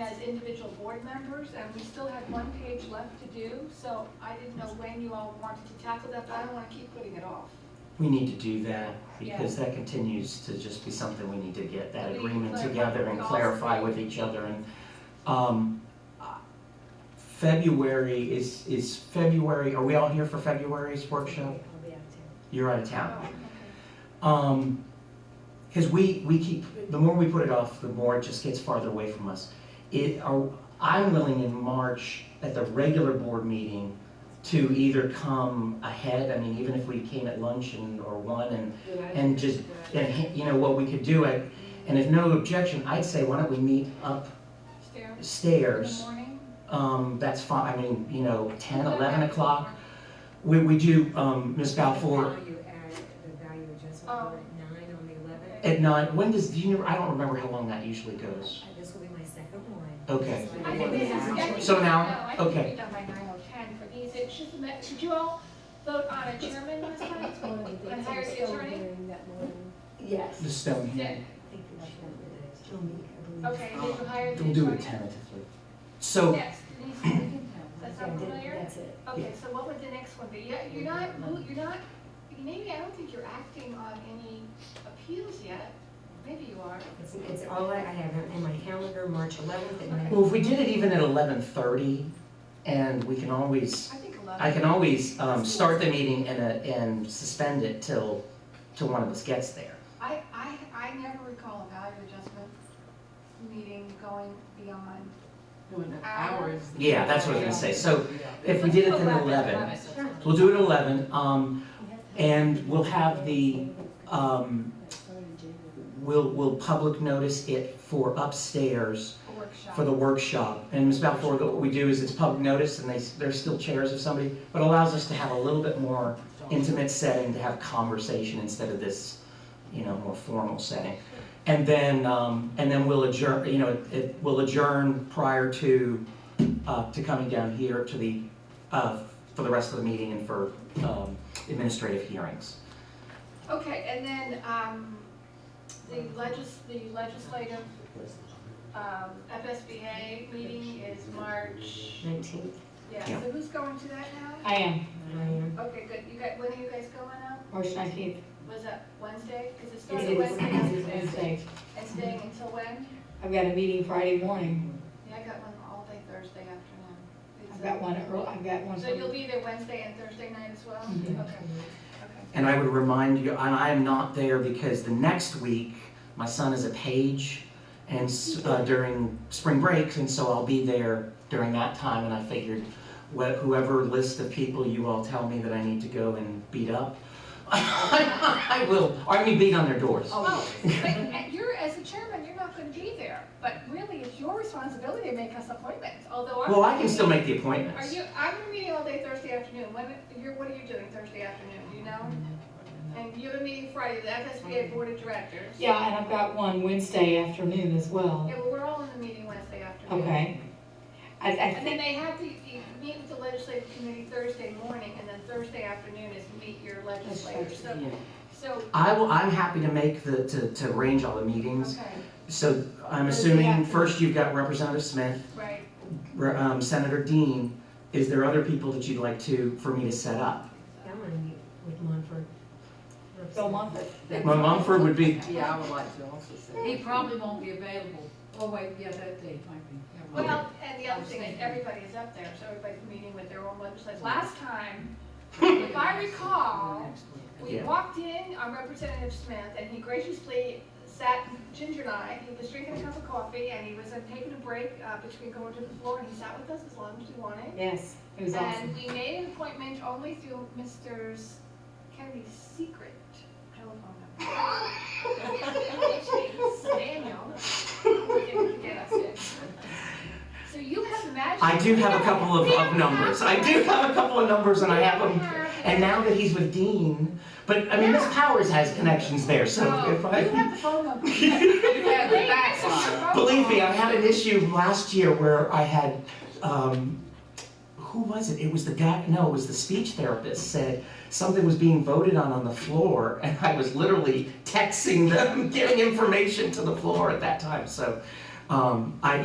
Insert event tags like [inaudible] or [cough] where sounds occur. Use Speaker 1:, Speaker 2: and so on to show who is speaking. Speaker 1: as individual board members, and we still had one page left to do, so I didn't know when you all wanted to tackle that, but I don't wanna keep putting it off.
Speaker 2: We need to do that because that continues to just be something we need to get that
Speaker 1: We
Speaker 2: agreement
Speaker 1: clarify
Speaker 2: together and
Speaker 1: the
Speaker 2: clarify
Speaker 1: goals.
Speaker 2: with each other and, um, uh, February is, is February, are we all here for February's workshop?
Speaker 3: I'll be out too.
Speaker 2: You're out of town.
Speaker 1: Oh, okay.
Speaker 2: Um, cause we, we keep, the more we put it off, the more it just gets farther away from us. It, are, I'm willing in March at the regular board meeting to either come ahead, I mean, even if we came at lunch and, or one and and just, and, he- you know, what we could do it, and if no objection, I'd say, why don't we meet
Speaker 1: Stairs in the
Speaker 2: upstairs?
Speaker 1: morning?
Speaker 2: Um, that's fine, I mean, you know, ten,
Speaker 1: Okay.
Speaker 2: eleven o'clock, we, we do, um, Ms. Balfour
Speaker 3: Value add, the value adjustment
Speaker 1: Oh.
Speaker 3: we're at nine on the eleventh.
Speaker 2: at nine, when does, do you know, I don't remember how long that usually goes.
Speaker 3: This will be my second one.
Speaker 2: Okay.
Speaker 3: So
Speaker 1: I
Speaker 3: I
Speaker 1: think
Speaker 3: think
Speaker 1: this is
Speaker 3: we
Speaker 1: getting.
Speaker 3: have-
Speaker 2: So now-
Speaker 1: No, I think
Speaker 2: okay.
Speaker 1: we done by nine oh ten for these, it should, did you all vote on a chairman last night?
Speaker 4: That's one of the things
Speaker 1: And
Speaker 4: I
Speaker 1: hire
Speaker 4: was
Speaker 1: the
Speaker 4: still
Speaker 1: attorney?
Speaker 4: hearing that morning.
Speaker 2: The
Speaker 5: Yes,
Speaker 2: stone
Speaker 1: Yeah,
Speaker 2: hand.
Speaker 3: I think we should have the
Speaker 5: still meet, I believe.
Speaker 1: okay, did you hire the attorney?
Speaker 2: We'll do it tentatively. So,
Speaker 1: Next, Denise, that sound
Speaker 5: Yeah,
Speaker 1: familiar?
Speaker 5: That's it.
Speaker 1: Okay, so what would the next one be? Yeah, You're not, mo- you're not, maybe I don't think you're acting on any appeals yet. Maybe you are.
Speaker 3: It's, it's all I I have in my calendar, March eleventh at nine.
Speaker 2: well, if we did it even at eleven thirty, and we can always
Speaker 1: I think a lot.
Speaker 2: I can always um, start the meeting and, uh, and suspend it till, till one of us gets there.
Speaker 1: I, I, I never recall a value adjustment meeting going beyond.
Speaker 6: Doing it
Speaker 1: Hours.
Speaker 6: hours.
Speaker 2: Yeah, that's what I was gonna say. So if we did
Speaker 1: Oh,
Speaker 2: it then at eleven,
Speaker 3: Sure.
Speaker 2: we'll do it at eleven, um, and we'll have the,
Speaker 1: uh,
Speaker 2: um,
Speaker 4: That's part of January.
Speaker 2: we'll, we'll public notice it for upstairs
Speaker 1: A workshop.
Speaker 2: for the workshop. And Ms. Balfour, what we do is it's public notice and they, there's still chairs if somebody, but allows us to have a little bit more intimate setting to have conversation instead of this, you know, more formal setting. And then, um, and then we'll adjourn, you know, it- it, we'll adjourn prior to, uh, to coming down here to the, uh, for the rest of the meeting and for, um, administrative hearings.
Speaker 1: Okay, and then, um, the legis, the legislative, um, FSBA meeting is March,
Speaker 3: Nineteenth,
Speaker 1: yeah, so
Speaker 2: Yeah.
Speaker 1: who's going to that now?
Speaker 7: I am,
Speaker 3: I am.
Speaker 1: Okay, good. You guys, when are you guys going now?
Speaker 7: March nineteenth,
Speaker 1: Was that Wednesday? Because it
Speaker 7: it
Speaker 1: started
Speaker 7: is,
Speaker 1: Wednesday.
Speaker 7: it is
Speaker 1: afternoon.
Speaker 7: Wednesday.
Speaker 1: And staying until when?
Speaker 7: I've got a meeting Friday morning,
Speaker 1: Yeah, I got one all day Thursday afternoon. Is
Speaker 7: I've
Speaker 1: that-
Speaker 7: got one early, I've got one.
Speaker 1: So you'll be there Wednesday and Thursday night as well?
Speaker 2: Mm-hmm.
Speaker 7: Mhm.
Speaker 1: Okay,
Speaker 2: And I would remind you, and I am not there because the next week, my son is a page and s- uh, during spring breaks, and so I'll be there during that time, and I figured wh- whoever list of people you all tell me that I need to go and beat up, [laughs] I will, or I mean beat on their doors.
Speaker 1: Oh, but and you're, as the chairman, you're not going to be there, but really, it's your responsibility to make us appointments, although I'm.
Speaker 2: Well, I can still make the
Speaker 1: Are
Speaker 2: appointments.
Speaker 1: you, I'm gonna be meeting all day Thursday afternoon. When, you're, what are you doing Thursday afternoon, do you know? And you have a meeting Friday, the FSBA Board of Directors.
Speaker 7: Yeah, and I've got one Wednesday afternoon as well,
Speaker 1: Yeah, well, we're all in the meeting Wednesday afternoon.
Speaker 7: okay? I, I
Speaker 1: And then
Speaker 7: think,
Speaker 1: they have to you meet with the legislative committee Thursday morning, and then Thursday afternoon is meet your legislators. So, so,
Speaker 2: I will, I'm happy to make the, to, to arrange all the meetings.
Speaker 1: okay,
Speaker 2: So I'm
Speaker 7: Thursday
Speaker 2: assuming
Speaker 7: afternoon.
Speaker 2: first you've got Representative Smith,
Speaker 1: right.
Speaker 2: Re- um, Senator Dean, is there other people that you'd like to, for me to set up?
Speaker 3: That one with Montford.
Speaker 7: Bill Mumford,
Speaker 2: My Mumford would be,
Speaker 6: Yeah, I would like to also say.
Speaker 8: He probably won't be available. Oh, wait, yeah, that day might be. Never mind.
Speaker 1: Well, and the other thing is everybody is up there, so everybody's meeting with their own legislators. Last time, if I recall, we
Speaker 2: Yeah.
Speaker 1: walked in on Representative Smith, and he graciously sat, Ginger and I, he was drinking a cup of coffee, and he was uh, taking a break uh, between going to the floor, and he sat with us as long as we wanted.
Speaker 7: yes, it was
Speaker 1: And
Speaker 7: awesome.
Speaker 1: we made an appointment only through Mr. Kennedy's secret telephone number. Which means Daniel, didn't get us in. So you have magic.
Speaker 2: I do have a couple of,
Speaker 1: We don't
Speaker 2: of numbers. I do have a couple of numbers and I have
Speaker 1: We don't
Speaker 2: them.
Speaker 1: have
Speaker 2: And now that he's with Dean, but I mean, Miss Powers has connections there, so
Speaker 1: Oh,
Speaker 2: if
Speaker 1: You
Speaker 2: I.
Speaker 1: have the phone number.
Speaker 2: [laughs]
Speaker 6: You had the backlog.
Speaker 2: Believe me, I had an issue last year where I had, um, who was it? It was the guy, no, it was the speech therapist said something was being voted on on the floor [laughs] and I was [laughs] literally texting them, giving information to the floor at that time, so. Um, I,